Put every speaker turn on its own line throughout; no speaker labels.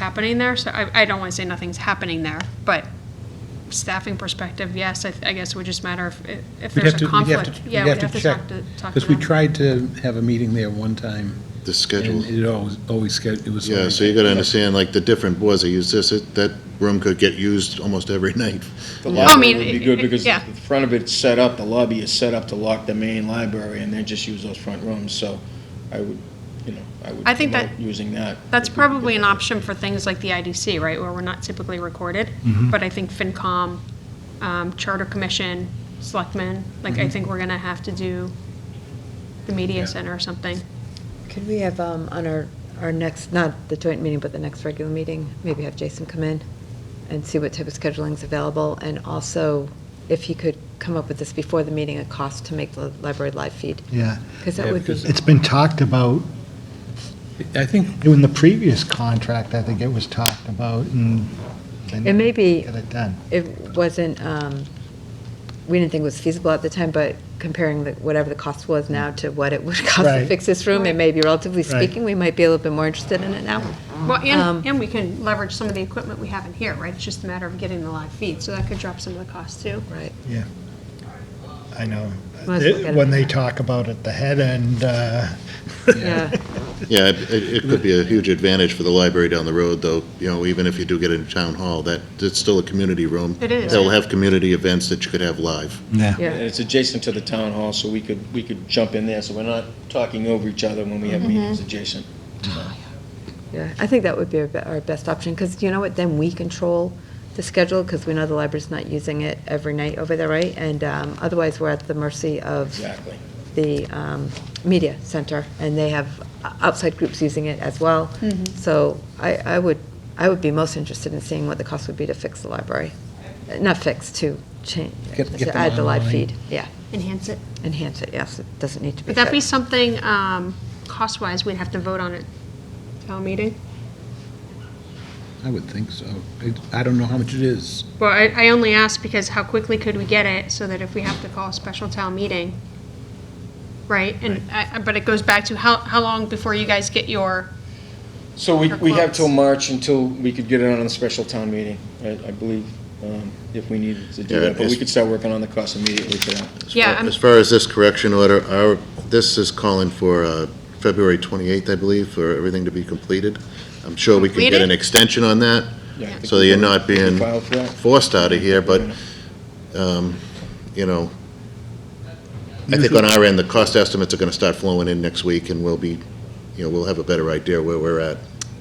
happening there, so I, I don't want to say nothing's happening there, but staffing perspective, yes, I, th- I guess it would just matter if, if
We'd
there's
have
a
to, we'd
conflict.
have to,
Yeah,
we'd have to check,
talk to, talk to
because we
them.
tried to have a meeting there one time,
The schedule.
and it always, always, sched- it was.
Yeah, so you gotta understand, like, the different boards that use this, it- that room could get used almost every night.
The
I
library
mean,
would be
it-
good because
yeah.
the front of it's set up, the lobby is set up to lock the main library and they just use those front rooms, so I would, you know, I would
I think that-
promote using that.
That's probably an option for things like the IDC, right, where we're not typically recorded,
Mm-hmm.
but I think FinCom, um, Charter Commission, Selectmen, like,
Mm-hmm.
I think we're gonna have to do the media center or something.
Could we have um, on our, our next, not the joint meeting, but the next regular meeting, maybe have Jason come in and see what type of scheduling's available, and also if he could come up with this before the meeting, a cost to make the library live feed,
Yeah,
because
Yeah,
that would be,
because-
it's been talked about,
I think,
in the previous contract, I think it was talked about, and they
it may be,
didn't get it done.
it wasn't, um, we didn't think it was feasible at the time, but comparing the, whatever the cost was now to what it would cost to
Right.
fix this room, it may be relatively
Right.
speaking, we might be a little bit more interested in it now.
Well,
Um,
and, and we can leverage some of the equipment we have in here, right, it's just a matter of getting the live feed, so that could drop some of the costs too.
Right.
I know.
Might as well get it.
When they talk about it, the head end, uh,
Yeah,
Yeah, it, it it could be a huge advantage for the library down the road, though, you know, even if you do get into town hall, that, it's still a community room.
It is.
They'll have community events that you could have live.
yeah.
And it's adjacent to the town hall, so we could, we could jump in there, so we're not talking over each other when we
Mm-hmm.
have meetings adjacent.
Yeah, I think that would be our be- our best option, because you know what, then we control the schedule, because we know the library's not using it every night over there, right? And um, otherwise, we're at the mercy of
Exactly.
the um, media center, and they have o- outside groups using it as well. So I, I would, I would be most interested in seeing what the cost would be to fix the library. Uh, Not fix, to change,
Get- get
to
them
add the live
online.
feed, yeah,
Enhance it.
enhance it, yes, it doesn't need to be
Would that be
fixed.
something, um, cost-wise, we'd have to vote on at town meeting?
I would think so. I- I don't know how much it is.
Well, I, I only asked because how quickly could we get it so that if we have to call a special town meeting, right? And, I- I- but it goes back to how, how long before you guys get your,
So we,
Or
we have
quotes.
till March until we could get it on a special town meeting, I, I believe, um, if we needed to do
Yeah,
that, but we
it's-
could start working on the cost immediately for that.
As
Yeah, um,
far-
I'm-
As far as this correction order, our, this is calling for uh, February 28th, I believe, for everything to be completed. I'm sure we can get
Completed?
an extension on that,
Yeah, I think
so
we
that you're
could-
not
we could
being
file for that.
forced out of here, but, um, you know, I think on our end, the cost estimates are going to start flowing in next week, and we'll be, you know, we'll have a better idea where we're at.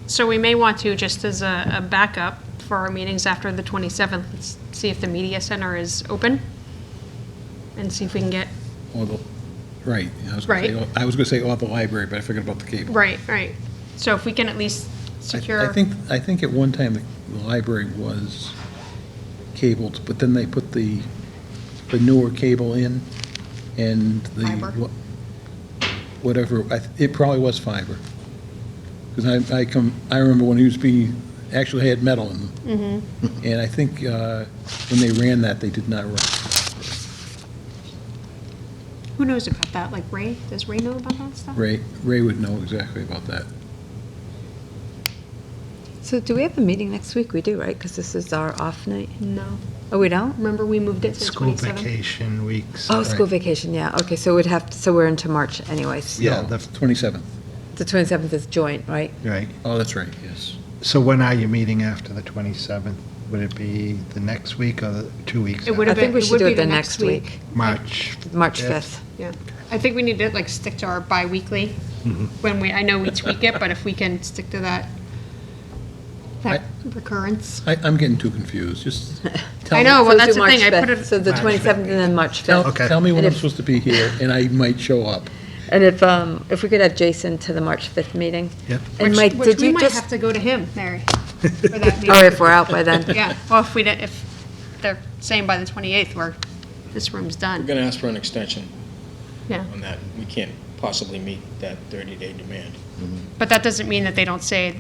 so we may want to, just as a, a backup for our meetings after the 27th, let's see if the media center is open and see if we can get,
Or the, right, I was gonna say,
Right.
I was gonna say, or the library, but I forgot about the cable.
right, right. So if we can at least
I-
secure.
I think, I think at one time, the the library was cabled, but then they put the, the newer cable in, and the.
Fiber?
wha- Whatever, I th- it probably was fiber. Because I, I come, I remember when it used to be, actually had metal in them.
Mm-hmm.
And I think uh, when they ran that, they did not run.
Who knows about that? Like Ray, does Ray know about that stuff?
Ray, Ray would know exactly about that.
So do we have a meeting next week? We do, right? Because this is our off night.
No.
Oh, we don't?
Remember, we moved it to the
school
27th?
vacation weeks.
Oh, school vacation, yeah, okay, so we'd have, so we're into March anyways.
Yeah,
No,
the-
27th.
The 27th is joint, right?
Right.
Oh, that's right, yes.
So when are you meeting after the 27th? Would it be the next week or the two weeks?
It would
I
have
after?
been,
think we
it
should
would
do
be
it
the
the
next
next
week.
March.
March
Yes.
5th.
Yeah, I think we need to like stick to our bi-weekly when we, I know we tweak it, but if we can stick to that, that recurrence.
I, I'm getting too confused, just tell
I
me.
know,
So
well, that's
do
the thing,
March
I put
5th.
it,
So the 27th and then March 5th.
Tell,
Okay.
tell me when
And
I'm
if-
supposed to be here, and I might show up.
And if, um, if we could have Jason to the March 5th meeting?
Yep.
And Mike,
which
did
we
you
might
just,
have to go to him, Mary, for that
or
meeting.
if we're out by then,
Yeah, well, if we, don't- if they're saying by the 28th, we're, this room's
We're
done,
gonna ask for an extension
yeah.
on that. We can't possibly meet that 30-day demand.
But that doesn't mean that they don't say,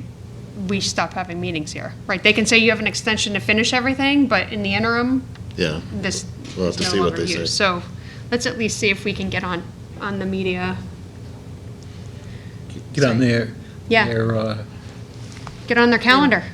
we stop having meetings here, right? They can say you have an extension to finish everything, but in the interim,
Yeah.
this
We'll
is
have to
no
see what
longer
they say.
used. So let's at least see if we can get on, on the media.
Get on their,
Yeah.
their uh,
Get on their calendar.